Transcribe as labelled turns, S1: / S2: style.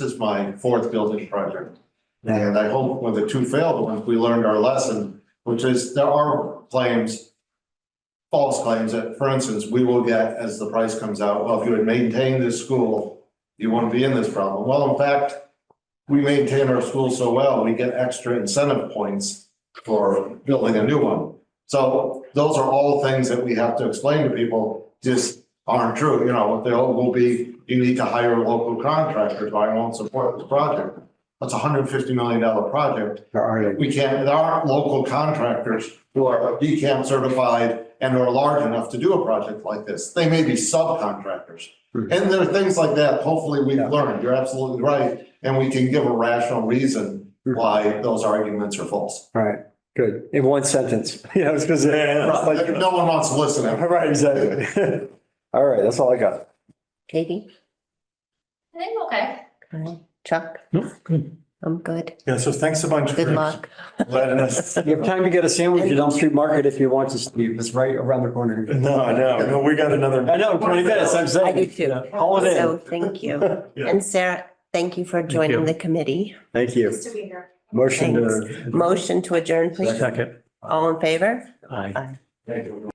S1: This is my fourth building project. And I hope with the two failed ones, we learned our lesson, which is there are claims, false claims that, for instance, we will get as the price comes out, well, if you had maintained this school, you wouldn't be in this problem. Well, in fact, we maintain our school so well, we get extra incentive points for building a new one. So those are all things that we have to explain to people, just aren't true, you know, they'll, will be, you need to hire local contractors, I won't support this project. That's a hundred fifty million dollar project.
S2: There are,
S1: We can't, there aren't local contractors who are decamp certified and are large enough to do a project like this. They may be subcontractors.
S2: Mhm.
S1: And there are things like that, hopefully we've
S2: Yeah.
S1: learned, you're absolutely right, and we can give a rational reason
S2: Mhm.
S1: why those arguments are false.
S2: all right, good, in one sentence, you know, because. Right,
S1: No one wants to listen to
S2: exactly. All right, that's all I got.
S3: Katie,
S4: I think okay.
S3: Colin, Chuck,
S5: No, good.
S3: I'm good.
S5: Yeah, so thanks a bunch.
S3: Good
S5: for
S3: luck.
S5: Letting us.
S2: You have time to get a sandwich at Elm Street Market if you want to, Steve, it's right around the corner.
S5: No, no, no, we got another.
S2: I know, twenty minutes, I'm saying.
S3: I do too.
S2: Yeah, Hold it
S3: So
S2: in,
S3: thank you.
S5: Yeah.
S3: And Sarah, thank you for joining the committee.
S2: thank you.
S4: Nice to be here.
S2: Motion to.
S3: Motion to adjourn, please.
S5: Second.
S3: All in favor?
S5: Aye.
S3: Aye.
S1: it.